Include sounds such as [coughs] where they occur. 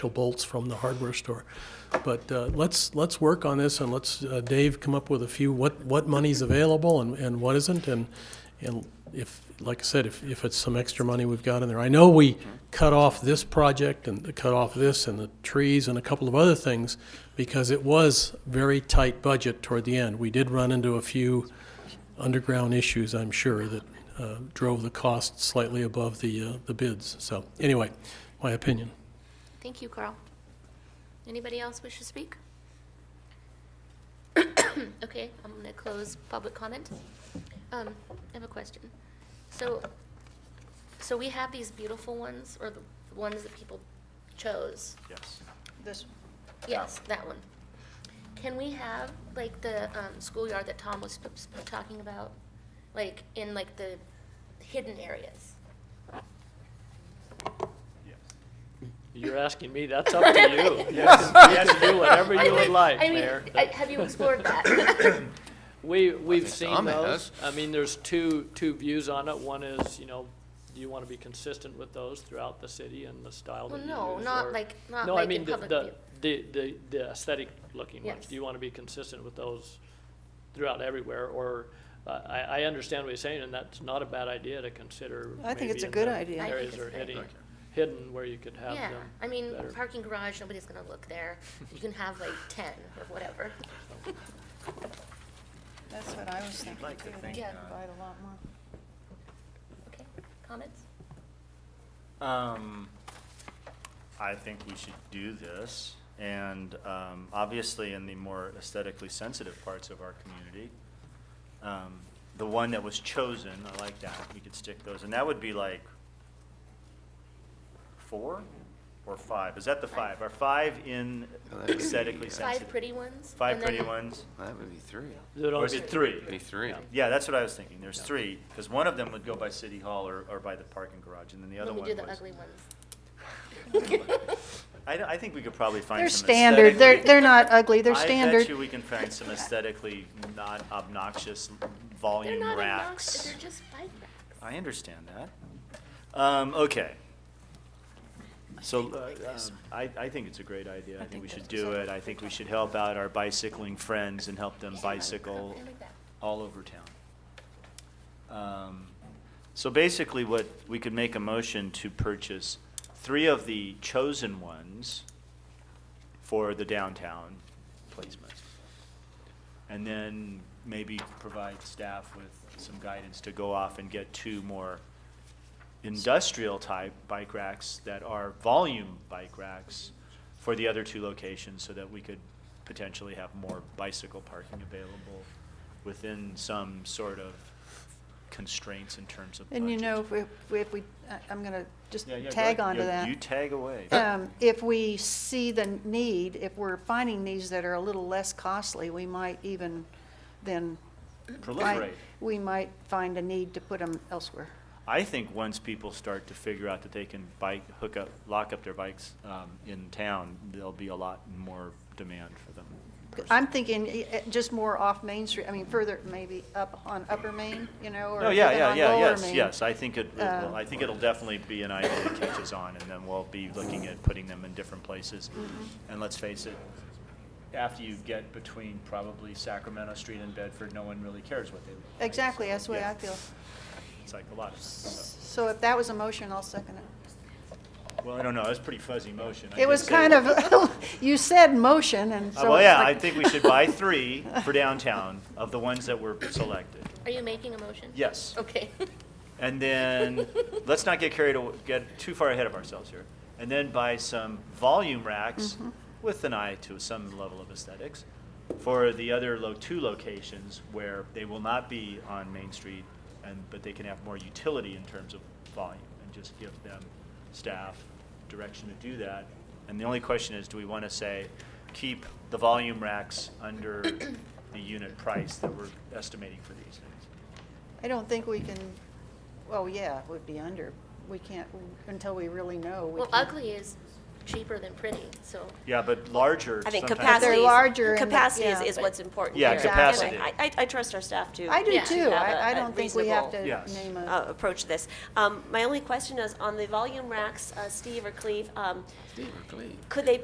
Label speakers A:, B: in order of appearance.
A: bolts from the hardware store. But uh, let's, let's work on this, and let's, uh, Dave, come up with a few, what, what money's available and, and what isn't, and, and if, like I said, if, if it's some extra money we've got in there. I know we cut off this project and cut off this and the trees and a couple of other things, because it was very tight budget toward the end. We did run into a few underground issues, I'm sure, that uh, drove the cost slightly above the, uh, the bids. So, anyway, my opinion.
B: Thank you, Carl. Anybody else wish to speak? [coughs] Okay, I'm going to close public comment. Um, I have a question. So, so we have these beautiful ones, or the the ones that people chose.
C: Yes.
D: This,
B: Yes, that one. Can we have, like, the um, schoolyard that Tom was sp- sp- talking about, like, in, like, the hidden areas?
C: Yes.
E: You're asking me, that's up to
C: [laughs]
E: you. You
C: Yes.
E: [laughs] can do whatever you would like,
B: I mean,
E: Mayor.
B: I- Have you explored that?
E: We, we've seen
F: Tom
E: those.
F: has.
E: I mean, there's two, two views on it. One is, you know, do you want to be consistent with those throughout the city and the style that
B: Well,
E: you
B: no,
E: use?
B: not
E: or-
B: like- not
E: No, I
B: like
E: mean,
B: in
E: the-
B: public
E: the,
B: view.
E: the, the, the aesthetic looking ones.
B: Yes.
E: Do you want to be consistent with those throughout everywhere? Or, uh, I, I understand what you're saying, and that's not a bad idea to consider.
D: I think
E: maybe
D: it's a
E: in
D: good
E: the
D: idea.
B: I think
E: Areas
B: it's
E: are
B: great.
E: hidden,
F: Okay.
E: hidden where you could have
B: Yeah,
E: them
B: I mean,
E: better.
B: parking garage, nobody's gonna look there. You can have [laughs] like ten or whatever.
D: that's what I was thinking
C: like to
D: too.
C: think,
D: They
B: uh,
D: provide a lot more.
B: Okay, comments?
C: Um, I think we should do this, and, um, obviously in the more aesthetically sensitive parts of our community. Um, the one that was chosen, I like that, we could stick those, and that would be like four or five, is that the five? Are five in
F: Well, that would be,
C: aesthetically
F: uh,
C: sensitive?
B: Five pretty ones?
C: Five
B: and then-
C: pretty ones?
F: That would be three.
E: There'd
C: Or is
E: only
C: it
E: be-
C: three?
F: Be three.
C: Yeah, that's what I was thinking. There's three, because one of them would go by City Hall or, or by the parking garage, and then the other
B: Let me
C: one
B: do the
C: was-
B: ugly ones.
C: I, I think we could probably find
D: They're
C: some
D: standard, they're,
C: aesthetically-
D: they're not ugly, they're
C: I
D: standard.
C: bet you we can find some aesthetically not obnoxious
B: They're
C: [laughs] volume
B: not obnoxious,
C: racks.
B: they're just bike racks.
C: I understand that. Um, okay. So, uh, um, I, I think it's a great idea. I think we should do it. I think we should help out our bicycling friends and help them
B: Yeah,
C: bicycle
B: I like that.
C: all over town. Um, So basically, what, we could make a motion to purchase three of the chosen ones for the downtown placement. And then maybe provide staff with some guidance to go off and get two more industrial-type bike racks that are volume bike racks for the other two locations, so that we could potentially have more bicycle parking available within some sort of constraints in terms of
D: And you
C: budget.
D: know, if we- if we, if we, I- I'm gonna just
C: Yeah, yeah, go
D: tag
C: ahead.
D: onto
C: You-
D: that.
C: You tag away.
D: Um, If we see the need, if we're finding these that are a little less costly, we might even then. find-
C: Proliferate.
D: We might find a need to put them elsewhere.
C: I think once people start to figure out that they can bike, hook up, lock up their bikes um, in town, there'll be a lot more demand for them.
D: I'm thinking eh, eh, just more off Main Street, I mean, further maybe up on Upper Main, you know, or
C: Oh,
D: even
C: yeah,
D: on
C: yeah,
D: Lower Main.
C: yeah, yes, yes, I think it, it will-
D: Um,
C: I think it'll definitely be an idea that catches on, and then we'll be looking at putting them in different places.
D: Mm-hmm.
C: And let's face it, after you get between probably Sacramento Street and Bedford, no one really cares what they look like.
D: Exactly,
C: So,
D: that's the way
C: yeah,
D: I feel.
C: It's like a lot of, so,
D: So if that was a motion, I'll second it.
C: well, I don't know, it was a pretty fuzzy motion. I
D: It was
C: just said-
D: kind of, [laughs] you said motion, and
C: Uh,
D: so.
C: Well,
D: it's
C: yeah, I
D: like-
C: think we should buy
D: [laughs]
C: three for downtown of the ones that were selected.
B: Are you making a motion?
C: Yes.
B: Okay.
C: And then, let's not get carried, aw- get too far ahead of ourselves here. And then buy some volume racks with an eye to some level of aesthetics for the other lo, two locations where they will not be on Main Street and, but they can have more utility in terms of volume and just give them staff direction to do that. And the only question is, do we want to say, keep the volume racks under the unit price that we're estimating for these things?
D: I don't think we can, well, yeah, it would be under. We can't, until we really know. we
B: Well,
D: can't-
B: ugly is cheaper than pretty, so.
C: Yeah, but larger.
F: I think
C: sometimes-
F: capacity,
D: They're larger
F: is-
D: and-
F: capacity is,
D: yeah.
F: is what's important
C: Yeah,
F: here.
C: capacity.
F: I, I- I trust our staff to.
D: I do
B: Yeah.
D: too.
F: Have a-
D: I, I
F: a
D: don't think we have to
F: reasonable,
C: Yes.
D: name a.
F: uh, approach this. Um, my only question is on the volume racks, uh, Steve or Cleve, um, Could they